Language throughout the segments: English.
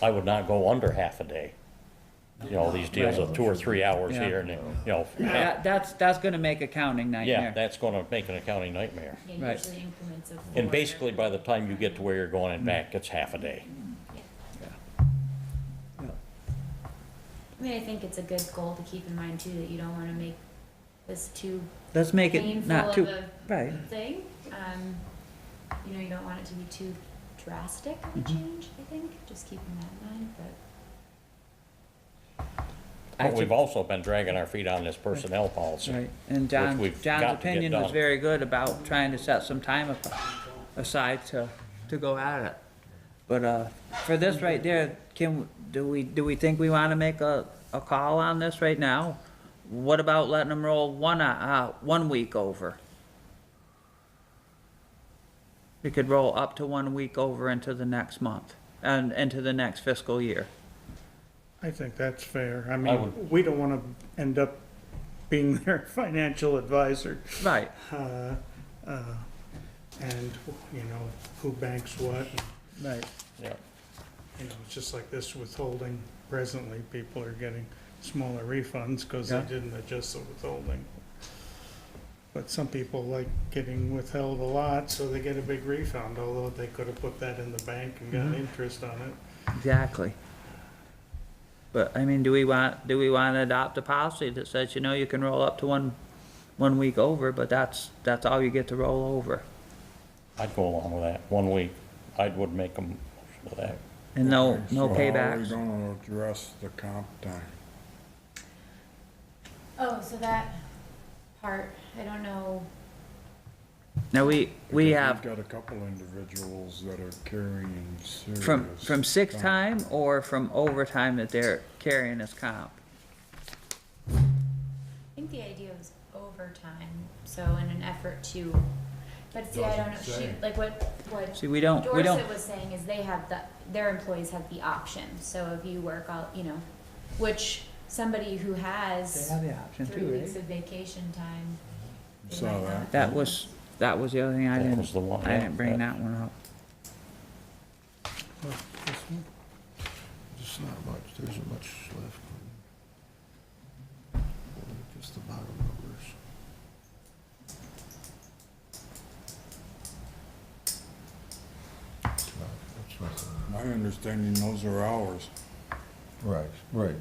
I would not go under half a day. You know, these deals of two or three hours Yeah. here and, you know, That, that's, that's gonna make accounting yeah, nightmare. that's gonna make an accounting nightmare. And Right. usually increments of. And four. basically, by the time you get to where you're going and back, it's half a day. Mm. I mean, I think it's a good goal to keep in mind too, that you don't wanna make this too Let's make it painful not of too, a right, thing. Um, you know, you don't want it to be too drastic of Mm-hmm. a change, I think, just keeping that in mind, but. I But think- we've also been dragging our feet on this personnel policy. right. And John, we've got John's to get opinion was done. very good about trying to set some time a- aside to, to go at it. But, uh, for this right there, can, do we, do we think we wanna make a, a call on this right now? What about letting them roll one, uh, one week over? We could roll up to one week over into the next month and into the next fiscal year. I think that's fair. I I mean, would- we don't want to end up being their financial advisor. Right, uh, uh, And, you know, who banks what, right. Yeah. you know, it's just like this withholding. Presently, people are getting smaller refunds because they Yeah. didn't adjust the withholding. But some people like getting withheld a lot, so they get a big refund, although they could have put that in the bank and got interest on it. Exactly. But, I mean, do we want, do we want to adopt a policy that says, you know, you can roll up to one, one week over, but that's, that's all you get to roll over? I'd go along with that, one week. I would make them for that. And no, Okay, no so How are we paybacks? gonna address the comp time? Oh, so that part, I don't know. Now, we, we Because have We've got a couple individuals that are carrying serious. from, from sick comp. time or from overtime that they're carrying as comp? I think the idea was overtime, so in an effort to, but see, I don't know, Doesn't say. she, like what, what See, we don't, we don't, Dorset was saying is they have the, their employees have the option, so if you work all, you know, which somebody who they has have the option three too, weeks right? of vacation time. they Saw might that. not. That was, that was the other thing I That was didn't, the one. I yeah, didn't bring that one up. There's not much, there isn't much left. Just the bottom numbers. It's not- it's not- My understanding, those are hours. Right, right.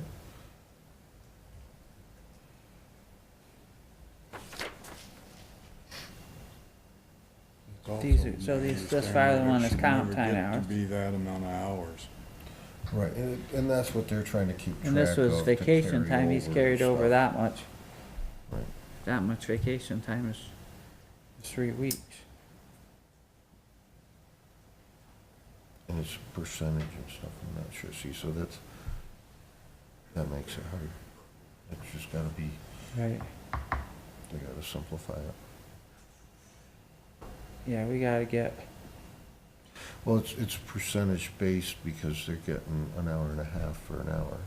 It's also These are- so my these- this understanding file that one it is should comp never time get hours. To be that amount of hours. Right, and, it- and that's what they're trying to keep track And of. this was to vacation carry time, he's and carried over stuff. that much. Right. That much vacation time is three weeks. And it's percentage and stuff, I'm not sure, see, so that's, that makes it hard. It's just gotta be, Right. they gotta simplify it. Yeah, we gotta get, Well, it's, it's percentage based because they're getting an hour and a half for an hour.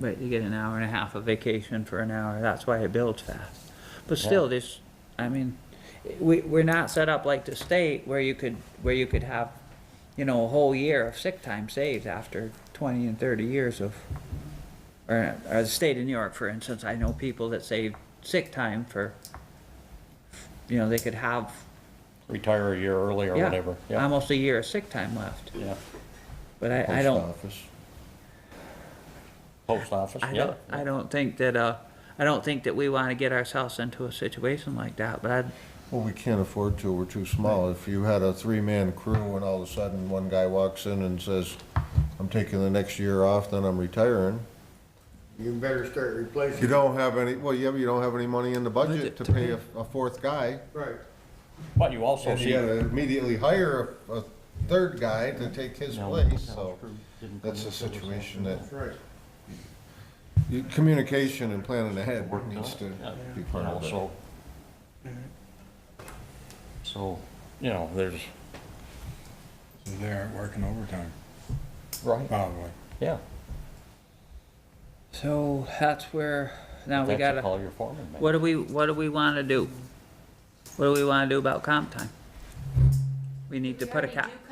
but you get an hour and a half of vacation for an hour, that's why it builds fast. But still, this, I mean, we, we're not set up like the state where you could, where you could have, you know, a whole year of sick time saved after twenty and thirty years of, or, or the state of New York, for instance, I know people that save sick time for, you know, they could have, Retire a year early or yeah, whatever. Yeah, almost a year of sick time left. yeah. But I, I Post don't, office. Post office, I yeah. don't, I don't think that, uh, I don't think that we wanna get ourselves into a situation like that, but I'd, Well, we can't afford to, we're too small. If you had a three-man crew and all of a sudden one guy walks in and says, I'm taking the next year off, then I'm retiring. You better start replacing. You don't have any, well, yeah, but you don't have any money in the budget Budget to to pay a, a fourth guy. Right. But you also And see. you gotta immediately hire a, a third guy to take his No, place, no, so screw- didn't that's come a in, so it was situation that, Right. you- communication and planning ahead Worked needs out, to yeah. be You part know, of it. so, so, you know, there's, So they aren't working overtime, right, probably. yeah. so that's where, now we That's a gotta, Call your foreman, man. what do we, what do we wanna do? What do we wanna do about comp time? We need to We put a already cap. do